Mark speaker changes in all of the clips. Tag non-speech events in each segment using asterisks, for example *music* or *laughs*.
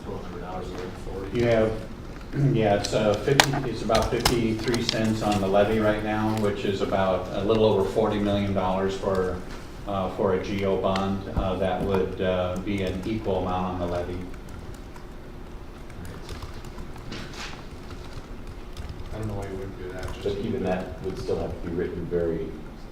Speaker 1: is it, forty?
Speaker 2: You have, *clears throat* yeah, it's uh, 50, it's about 53 cents on the levy right now, which is about a little over $40 million for, uh, for a GO bond. Uh, That would uh, be an equal amount on the levy.
Speaker 1: I don't know why you wouldn't do that,
Speaker 3: But
Speaker 1: just.
Speaker 3: even that would still have to be written very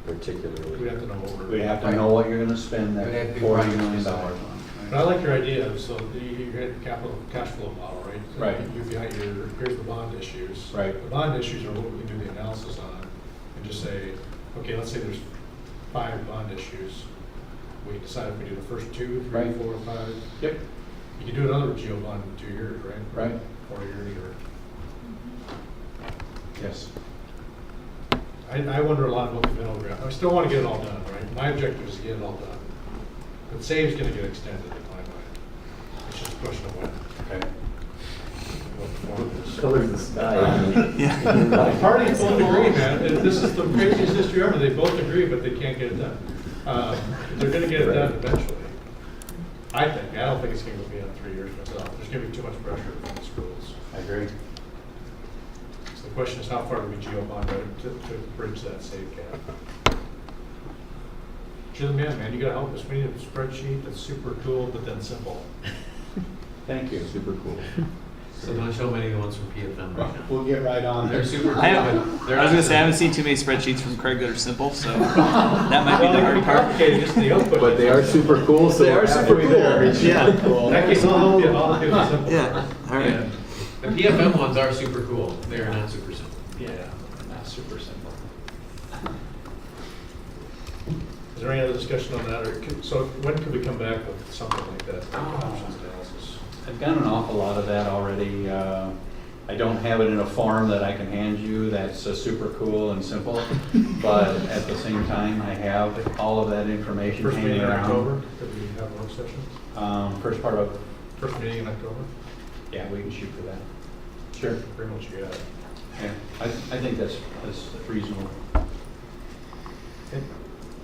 Speaker 1: We'd
Speaker 3: particularly.
Speaker 1: have to know what
Speaker 2: We
Speaker 1: we're.
Speaker 2: have to know what you're going to spend
Speaker 4: Right. It'd
Speaker 2: that
Speaker 4: have to be
Speaker 2: $40
Speaker 4: right.
Speaker 2: million on.
Speaker 1: But I like your idea, so you, you had capital, cash flow model, right?
Speaker 2: Right.
Speaker 1: You've got your, here's the bond issues.
Speaker 2: Right.
Speaker 1: The bond issues are what we do the analysis on, and just say, okay, let's say there's five bond issues. We decide if we do the first two, three,
Speaker 2: Right.
Speaker 1: four, and five.
Speaker 2: Yep,
Speaker 1: You can do another geo bond in two years, right?
Speaker 2: Right.
Speaker 1: Four years, or,
Speaker 2: yes.
Speaker 1: I, I wonder a lot about the middle ground. I still want to get it all done, right? My objective is to get it all done. But save's gonna get extended in my mind. It's just a question of when,
Speaker 2: Okay.
Speaker 1: what form it is.
Speaker 3: Colors
Speaker 1: *laughs*
Speaker 3: the sky.
Speaker 1: The parties both agree, man. It- This is the craziest history ever. They both agree, but they can't get it done. Uh, They're gonna get it done eventually. I think. I don't think it's gonna be on three years myself. There's gonna be too much pressure on the schools.
Speaker 2: I agree.
Speaker 1: So the question is, how far do we geo bond it to, to bridge that safe gap? You're the man, man. You gotta help us. We need a spreadsheet that's super cool, but then simple.
Speaker 2: Thank you.
Speaker 3: Super cool.
Speaker 5: So don't show many of the ones from PFM right now.
Speaker 2: We'll get right on
Speaker 5: They're
Speaker 2: there.
Speaker 5: super cool,
Speaker 6: I haven't-
Speaker 5: but they're.
Speaker 6: I was gonna
Speaker 5: not-
Speaker 6: say I haven't seen too many spreadsheets from Craig that are simple, so that might be
Speaker 1: Well,
Speaker 6: the
Speaker 1: it can
Speaker 6: hard part.
Speaker 1: complicated, just the output.
Speaker 3: But they are super cool, so
Speaker 6: They are
Speaker 3: we're
Speaker 6: super
Speaker 3: halfway there.
Speaker 6: cool. Yeah.
Speaker 1: In that case, all the, all the people are simple.
Speaker 6: Yeah. All right.
Speaker 5: Yeah. The PFM ones are super cool, they are not super simple.
Speaker 1: Yeah, not super simple. Is there any other discussion on that, or, could- so when could we come back with something like that, like options analysis?
Speaker 2: I've done an awful lot of that already. Uh, I don't have it in a form that I can hand you that's uh, super cool and simple, *laughs* but at the same time, I have all of that information
Speaker 1: First meeting
Speaker 2: hanging
Speaker 1: in October,
Speaker 2: around.
Speaker 1: could we have work sessions?
Speaker 2: Um, First part of,
Speaker 1: First meeting in October,
Speaker 2: yeah, we can shoot for that. Sure.
Speaker 1: pretty much you got it.
Speaker 2: Yeah, I, I think that's, that's reasonable.
Speaker 1: And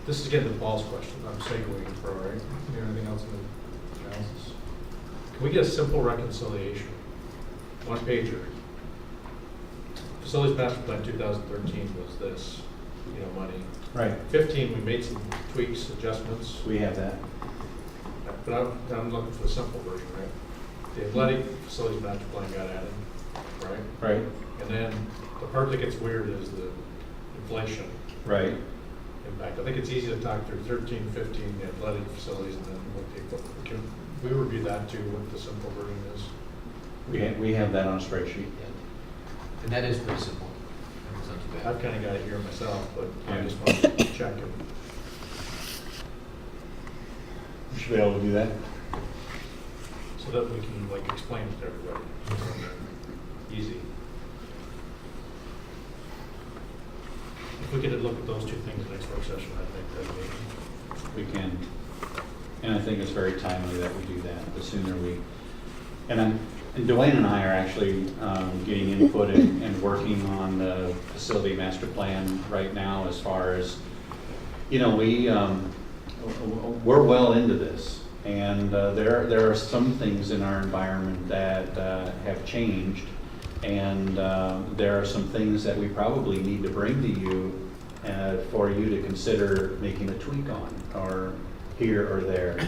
Speaker 1: This is again the balls question, I'm segueing for, all right, you know, anything else in the analysis? Can we get a simple reconciliation, one pager? Facilities master plan two thousand thirteen was this, you know, money.
Speaker 2: Right.
Speaker 1: Fifteen, we made some tweaks, adjustments,
Speaker 2: We have that.
Speaker 1: but I'm, I'm looking for the simple version, right? The athletic facilities master plan got added, right?
Speaker 2: Right.
Speaker 1: And then the part that gets weird is the inflation.
Speaker 2: Right.
Speaker 1: impact. I think it's easy to talk through 13, 15 athletic facilities and then what the equipment. Can we review that too, what the simple version is?
Speaker 2: We, ha- we have that on a spreadsheet.
Speaker 5: And that is pretty simple. That was not too bad.
Speaker 1: I've kind of got it here myself, but I
Speaker 2: Yeah.
Speaker 1: just want to check it.
Speaker 2: We should be able to do that.
Speaker 1: so that we can like explain it to everybody. Easy. If we could look at those two things next work session, I think that'd be,
Speaker 2: we can. And I think it's very timely that we do that, the sooner we, and I'm, and Dwayne and I are actually um, getting input and, and working on the facility master plan right now as far as, you know, we, um, w- w- we're well into this. And uh, there, there are some things in our environment that uh, have changed. And uh, there are some things that we probably need to bring to you uh, for you to consider making a tweak on, or here or there.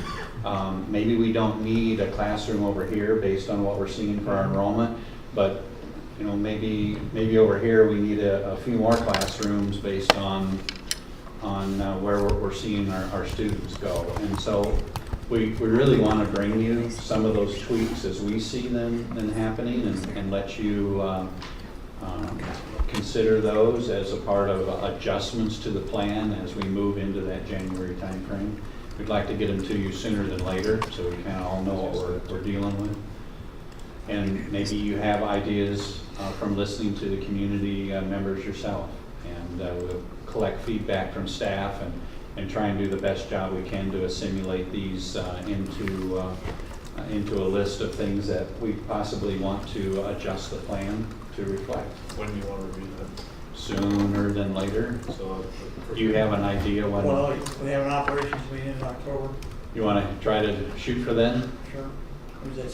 Speaker 2: Um, Maybe we don't need a classroom over here based on what we're seeing for our enrollment, but, you know, maybe, maybe over here, we need a, a few more classrooms based on, on uh, where we're, we're seeing our, our students go. And so we, we really want to bring you some of those tweaks as we see them, them happening and, and let you, um, um, consider those as a part of adjustments to the plan as we move into that January timeframe. We'd like to get them to you sooner than later, so we kind of all know what we're, we're dealing with. And maybe you have ideas uh, from listening to the community uh, members yourself. And uh, we'll collect feedback from staff and, and try and do the best job we can to assimilate these uh, into, uh, uh, into a list of things that we possibly want to adjust the plan to reflect
Speaker 1: when you want to review that.
Speaker 2: sooner than later.
Speaker 1: So. uh,
Speaker 2: You have an idea when,
Speaker 7: Well, we have an operations meeting in October,
Speaker 2: you want to try to shoot for then?
Speaker 7: sure. Who's that